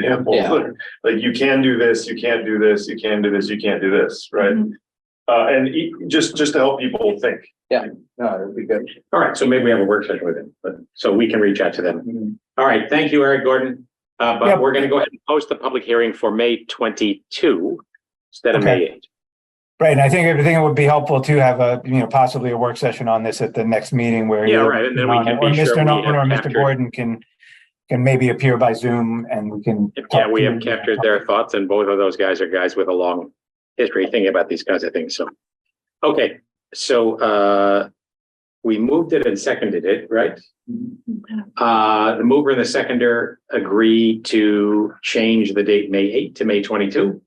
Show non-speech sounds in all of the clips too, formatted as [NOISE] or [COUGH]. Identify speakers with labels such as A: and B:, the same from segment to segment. A: examples. Like you can do this, you can't do this, you can do this, you can't do this, right? Uh, and e- just, just to help people think.
B: No, it'd be good.
C: All right, so maybe we have a work session with him, but so we can reach out to them. All right, thank you, Eric Gordon. Uh, but
D: Yep.
C: we're gonna go ahead and post the public hearing for May twenty-two instead of May eight.
D: Right, and I think, I think it would be helpful to have a, you know, possibly a work session on this at the next meeting where.
C: Yeah,
D: either
C: right, and then we can
D: Or
C: be sure
D: Mr.
C: we
D: Nolan
C: have
D: or Mr.
C: captured-
D: Gordon can, can maybe appear by Zoom and we can.
C: Yeah,
D: talk
C: we have
D: to-
C: captured their thoughts and both of those guys are guys with a long history thinking about these kinds of things, so. Okay, so, uh, we moved it and seconded it, right? Uh, the mover and the seconder agree to change the date May eight to May twenty-two.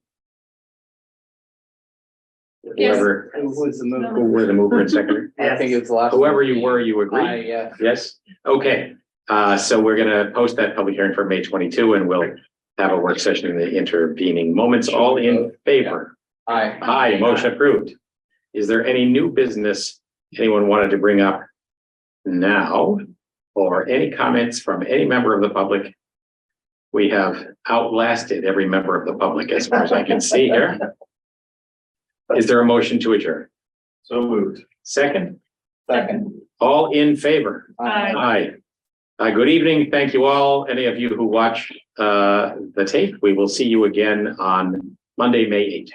E: Yes.
C: Whoever,
B: Who was the
C: who were the mover and seconder?
B: I think it's the last.
C: Whoever you were, you
B: I, uh,
C: agree?
B: yeah.
C: Yes? Okay, uh, so we're gonna post that public hearing for May twenty-two and we'll have a work session in the intervening moments, all in favor.
B: I,
C: Aye, motion approved. Is there any new business anyone wanted to bring up now? Or any comments from any member of the public? We have outlasted every member of the public as far as I can see [LAUGHS] here. Is there a motion to adjourn?
A: So moved.
C: Second,
B: second.
C: all in favor?
E: Aye.
C: Hi. Uh, good evening. Thank you all. Any of you who watch, uh, the tape, we will see you again on Monday, May eighth.